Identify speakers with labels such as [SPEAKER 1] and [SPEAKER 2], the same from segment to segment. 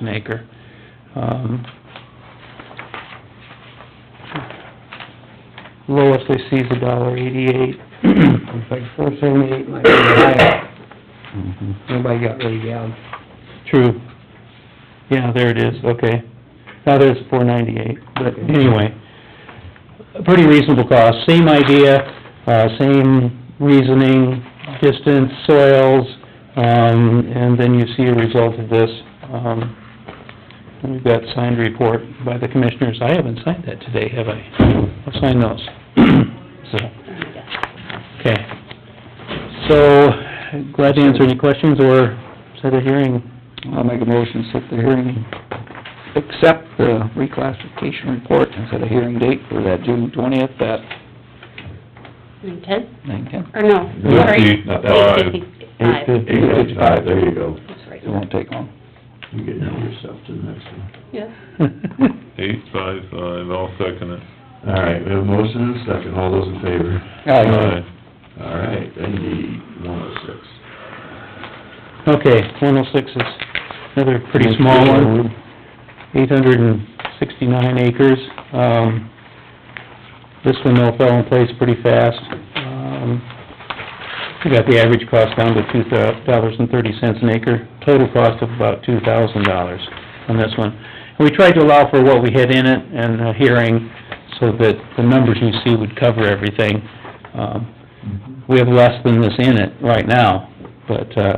[SPEAKER 1] an acre. Um, Lowest they see is a dollar eighty-eight, it's like four seventy-eight might be high,
[SPEAKER 2] Mm-hmm.
[SPEAKER 1] nobody got really down. True, yeah, there it is, okay, now there's four ninety-eight, but anyway, a pretty reasonable cost, same idea, uh, same reasoning, distance, soils, um, and then you see a result of this, um, We've got signed report by the commissioners. I haven't signed that today, have I? I'll sign those. So, okay. So, glad to answer any questions or set a hearing.
[SPEAKER 2] I'll make a motion, set the hearing, accept the reclassification report and set a hearing date for that June twentieth at
[SPEAKER 3] Nine ten,
[SPEAKER 2] nine ten.
[SPEAKER 3] or no, sorry.
[SPEAKER 4] Eight, five.
[SPEAKER 3] Eight fifty-five.
[SPEAKER 2] Eight
[SPEAKER 4] Eight fifty-five, there you go.
[SPEAKER 3] That's right.
[SPEAKER 2] It won't take long.
[SPEAKER 4] You get yourself to the next one.
[SPEAKER 3] Yeah.
[SPEAKER 5] Eight five five, I'll second it.
[SPEAKER 4] All right, we have a motion and a second, all those in favor?
[SPEAKER 2] Aye.
[SPEAKER 4] All right, ND one oh six.
[SPEAKER 1] Okay, one oh six is another pretty small one, eight hundred and sixty-nine acres. Um, this one though fell in place pretty fast. Um, we got the average cost down to two dollars and thirty cents an acre, total cost of about two thousand dollars on this one. And we tried to allow for what we had in it and a hearing, so that the numbers you see would cover everything. Um, we have less than this in it right now, but, uh,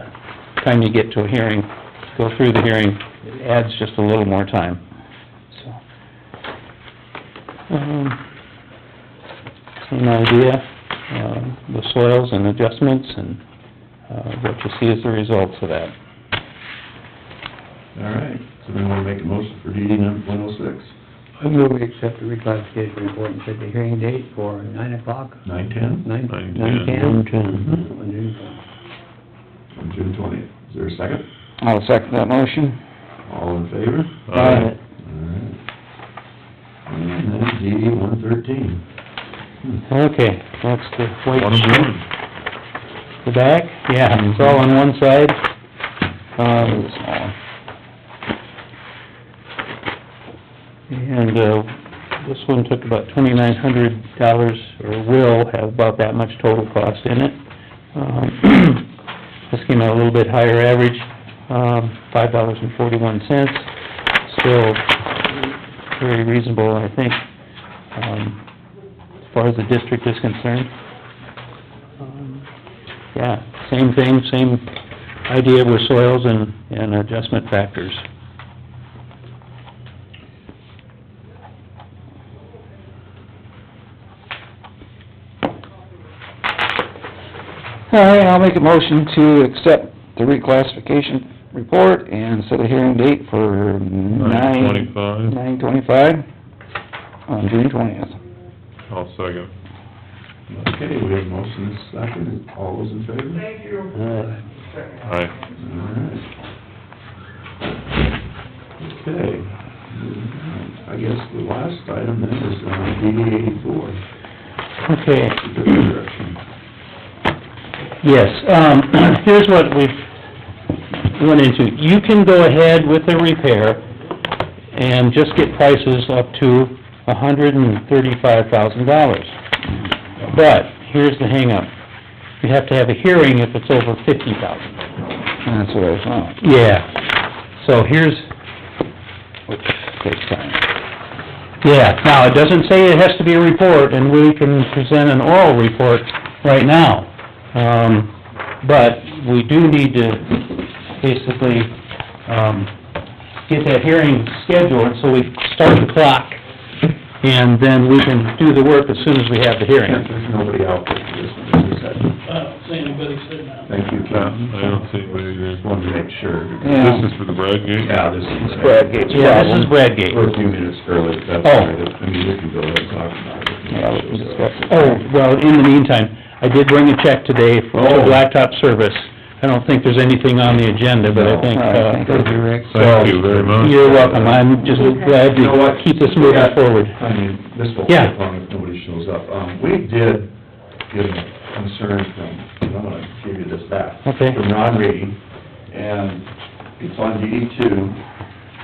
[SPEAKER 1] time you get to a hearing, go through the hearing, it adds just a little more time, so. Um, Same idea, uh, the soils and adjustments and, uh, what you see is the results of that.
[SPEAKER 4] All right, so we wanna make a motion for DD number one oh six,
[SPEAKER 2] I move we accept the reclassification report and set the hearing date for nine o'clock,
[SPEAKER 4] nine ten?
[SPEAKER 2] nine,
[SPEAKER 5] Nine
[SPEAKER 2] nine
[SPEAKER 5] ten.
[SPEAKER 2] ten.
[SPEAKER 4] Mhm.
[SPEAKER 2] On June 20th.
[SPEAKER 4] On June twentieth, is there a second?
[SPEAKER 2] I'll second that motion.
[SPEAKER 4] All in favor?
[SPEAKER 5] Aye.
[SPEAKER 4] All right. And then DD one thirteen. Hmm.
[SPEAKER 1] Okay, that's the white
[SPEAKER 5] One
[SPEAKER 1] sheet.
[SPEAKER 5] one.
[SPEAKER 1] The back, yeah, it's all on one side. Um, And, uh, this one took about twenty-nine hundred dollars, or will have about that much total cost in it. Um, This came out a little bit higher average, um, five dollars and forty-one cents, still very reasonable, I think, um, as far as the district is concerned. Um, yeah, same thing, same idea with soils and, and adjustment factors.
[SPEAKER 2] All right, I'll make a motion to accept the reclassification report and set a hearing date for
[SPEAKER 5] Nine
[SPEAKER 2] nine,
[SPEAKER 5] twenty-five,
[SPEAKER 2] nine twenty-five on June twentieth.
[SPEAKER 5] I'll second.
[SPEAKER 4] Okay, we have a motion and a second, all those in favor? Thank you.
[SPEAKER 5] Aye.
[SPEAKER 4] All right. Okay. I guess the last item then is uh, on DD eighty-four,
[SPEAKER 1] Okay,
[SPEAKER 4] the direction.
[SPEAKER 1] yes, um, here's what we've went into. You can go ahead with the repair and just get prices up to a hundred and thirty-five thousand dollars. But, here's the hangup. You have to have a hearing if it's over fifty thousand.
[SPEAKER 2] That's what I thought.
[SPEAKER 1] Yeah, so here's,
[SPEAKER 2] which takes time.
[SPEAKER 1] Yeah, now, it doesn't say it has to be a report, and we can present an oral report right now. Um, but we do need to basically, um, get that hearing scheduled, so we start the clock, and then we can do the work as soon as we have the hearing.
[SPEAKER 4] There's nobody out there for this one, is there?
[SPEAKER 6] I don't see anybody sitting out.
[SPEAKER 4] Thank you, Ken.
[SPEAKER 5] Yeah, I don't see anybody there.
[SPEAKER 4] Just wanted to make sure.
[SPEAKER 2] Yeah.
[SPEAKER 5] This is for the Bradgate?
[SPEAKER 4] Yeah, this is.
[SPEAKER 2] Bradgate's
[SPEAKER 1] Yeah, this is Bradgate.
[SPEAKER 4] We're a few minutes early, but that's all right, I mean, we can go ahead and talk about it.
[SPEAKER 2] Yeah, we can discuss it.
[SPEAKER 1] Oh, well, in the meantime, I did bring a check today for the
[SPEAKER 4] Oh.
[SPEAKER 1] blacktop service. I don't think there's anything on the agenda, but I
[SPEAKER 4] No.
[SPEAKER 1] think,
[SPEAKER 2] All right,
[SPEAKER 1] uh...
[SPEAKER 2] thank you, Rick.
[SPEAKER 5] Thank you very much.
[SPEAKER 1] You're welcome, I'm just glad
[SPEAKER 4] You know
[SPEAKER 1] to
[SPEAKER 4] what?
[SPEAKER 1] keep this moving forward.
[SPEAKER 4] I mean, this will
[SPEAKER 1] Yeah.
[SPEAKER 4] take long if nobody shows up. Um, we did get a concern from, I'm gonna give you this back.
[SPEAKER 1] Okay.
[SPEAKER 4] From Ron Reed, and it's on DD two,